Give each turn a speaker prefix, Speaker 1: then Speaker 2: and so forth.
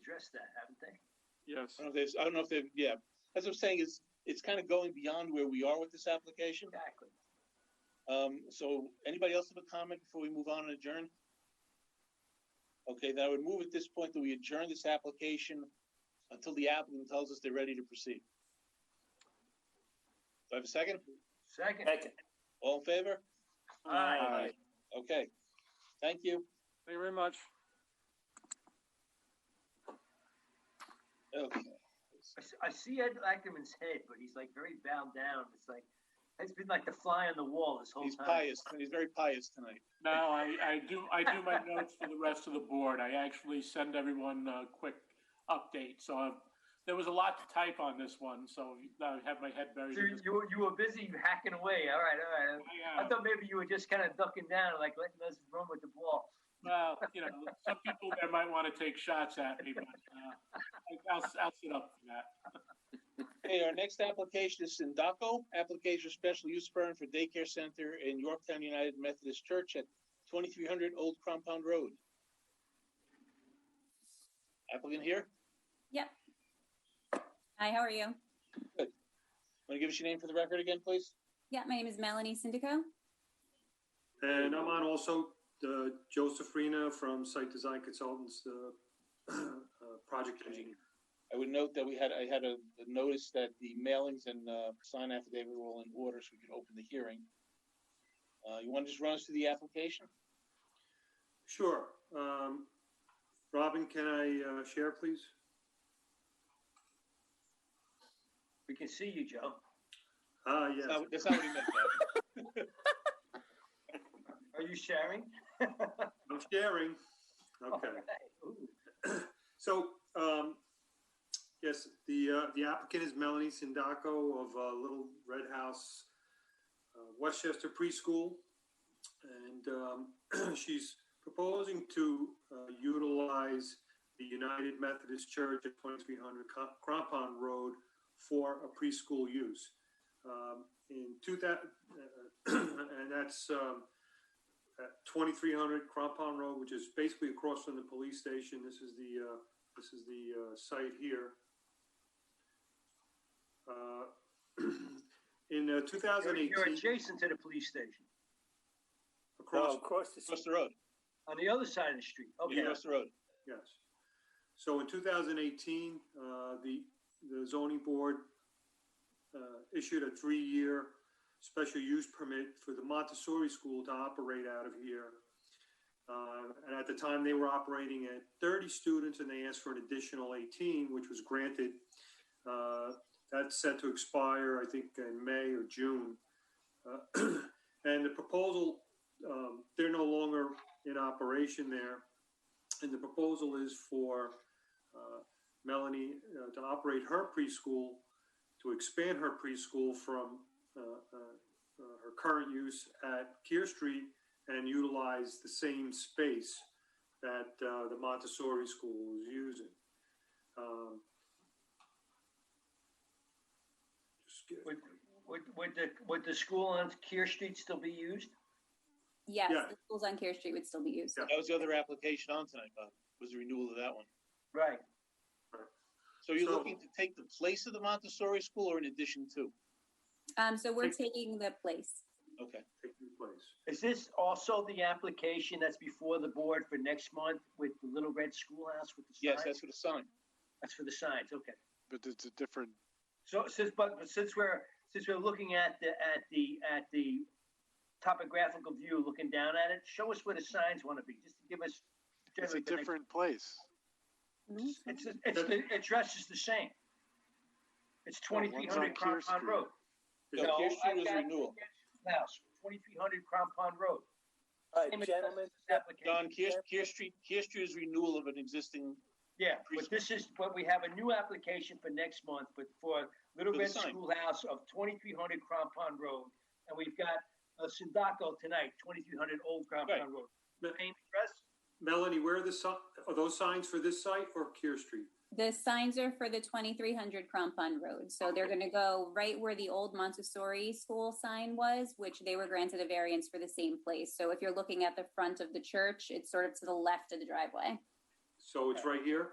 Speaker 1: addressed that, haven't they?
Speaker 2: Yes,
Speaker 3: I don't know if there's, I don't know if they've, yeah, as I'm saying, is, it's kind of going beyond where we are with this application.
Speaker 1: Exactly.
Speaker 3: Um, so anybody else have a comment before we move on and adjourn? Okay, then I would move at this point that we adjourn this application until the applicant tells us they're ready to proceed. Do I have a second?
Speaker 1: Second.
Speaker 3: All in favor?
Speaker 1: Aye.
Speaker 2: Aye.
Speaker 3: Okay, thank you.
Speaker 2: thank you very much.
Speaker 3: Okay.
Speaker 1: I s- I see Ed Ackerman's head, but he's like very bowed down. It's like, it's been like the fly on the wall this whole
Speaker 3: He's
Speaker 1: time.
Speaker 3: pious, he's very pious tonight.
Speaker 2: Now, I, I do, I do my notes for the rest of the board. I actually send everyone a quick update, so I've- there was a lot to type on this one, so I have my head buried
Speaker 1: So
Speaker 2: in this.
Speaker 1: you, were- you were busy hacking away. All right, all right.
Speaker 2: I,
Speaker 1: I
Speaker 2: uh,
Speaker 1: thought maybe you were just kind of ducking down, like letting us run with the ball.
Speaker 2: Well, you know, some people there might want to take shots at me, but, uh, I- I'll, I'll sit up for that.
Speaker 3: Okay, our next application is Sindaco, application for special use permit for daycare center in Yorktown United Methodist Church at twenty-three hundred Old Compound Road. Applicant here,
Speaker 4: Hi, how are you?
Speaker 3: want to give us your name for the record again, please?
Speaker 4: Yeah, my name is Melanie Syndico.
Speaker 5: And I'm on also uh, Joseph Rena from Site Design Consultants, uh, uh, project engineer.
Speaker 3: I would note that we had, I had a a notice that the mailings and uh, sign affidavit were all in order, so we could open the hearing. Uh, You want to just run us through the application?
Speaker 5: Sure. Um, Robin, can I uh, share, please?
Speaker 1: We can see you, Joe.
Speaker 5: Ah, yes.
Speaker 3: That's not- That's not what he meant. though.
Speaker 1: Are you sharing?
Speaker 5: I'm sharing. Okay.
Speaker 1: All right. Ooh.
Speaker 5: So, um, yes, the, uh, the applicant is Melanie Sindaco of, uh, Little Red House, uh, Westchester Preschool. And, um, she's proposing to, uh, utilize the United Methodist Church at twenty-three hundred Crampon Road for a preschool use. Um, in two thou- uh, and that's, um, at twenty-three hundred Crampon Road, which is basically across from the police station. This is the, uh, this is the uh, site here. Uh, In uh,
Speaker 1: You're- You're
Speaker 5: 2018,
Speaker 1: adjacent to the police station
Speaker 5: across,
Speaker 3: Across the road,
Speaker 1: on the other side of the street. Okay.
Speaker 3: across the road.
Speaker 5: yes. So in 2018, uh, the the zoning board uh, issued a three-year special use permit for the Montessori school to operate out of here. Uh, And at the time, they were operating at 30 students and they asked for an additional 18, which was granted. Uh, That's set to expire, I think, in May or June. Uh, And the proposal, um, they're no longer in operation there. And the proposal is for uh, Melanie uh, to operate her preschool, to expand her preschool from uh, uh, uh, her current use at Kear Street and utilize the same space that uh, the Montessori school is using. Um, just get-
Speaker 1: Would, would, would the, would the school on Keir Street still be used?
Speaker 4: Yes,
Speaker 5: Yeah.
Speaker 4: the schools on Care Street would still be used.
Speaker 5: Yeah.
Speaker 3: That was the other application on tonight, Bob, was the renewal of that one.
Speaker 1: Right.
Speaker 3: So you're
Speaker 5: So-
Speaker 3: looking to take the place of the Montessori school or in addition to?
Speaker 4: Um, so we're
Speaker 5: Thank-
Speaker 4: taking the place.
Speaker 3: Okay,
Speaker 5: Take your place.
Speaker 1: Is this also the application that's before the board for next month with the Little Red Schoolhouse with the signs?
Speaker 3: yes, that's for the sign.
Speaker 1: That's for the signs, okay.
Speaker 6: But it's a different,
Speaker 1: So since, but but since we're, since we're looking at the, at the, at the topographical view, looking down at it, show us where the signs want to be, just to give us.
Speaker 6: it's a
Speaker 1: generally the next-
Speaker 6: different place.
Speaker 4: Mhm.
Speaker 1: It's, it's, the address is the same. It's twenty-three hundred
Speaker 6: one's on Kear
Speaker 1: Crampon
Speaker 6: Street.
Speaker 1: Road.
Speaker 3: No,
Speaker 1: No,
Speaker 3: Pierce Street
Speaker 1: I've
Speaker 3: was
Speaker 1: got-
Speaker 3: renewal.
Speaker 1: House, twenty-three hundred Crampon Road.
Speaker 7: All
Speaker 1: Same
Speaker 7: right,
Speaker 1: address
Speaker 7: gentlemen,
Speaker 1: as this application.
Speaker 3: Don, Kier, Kier Street, Kier Street is renewal of an existing,
Speaker 1: Yeah, but this is, but we have a new application for next month, but for Little
Speaker 3: For the
Speaker 1: Red
Speaker 3: sign.
Speaker 1: Schoolhouse of twenty-three hundred Crampon Road. And we've got uh, Sindaco tonight, twenty-three hundred Old
Speaker 3: Right.
Speaker 1: Crampon Road.
Speaker 5: But-
Speaker 1: Same address?
Speaker 5: Melanie, where are the, si- are those signs for this site or Kear Street?
Speaker 4: The signs are for the twenty-three hundred Crampon Road, so they're gonna go right where the old Montessori school sign was, which they were granted a variance for the same place. So if you're looking at the front of the church, it's sort of to the left of the driveway.
Speaker 5: So it's right here?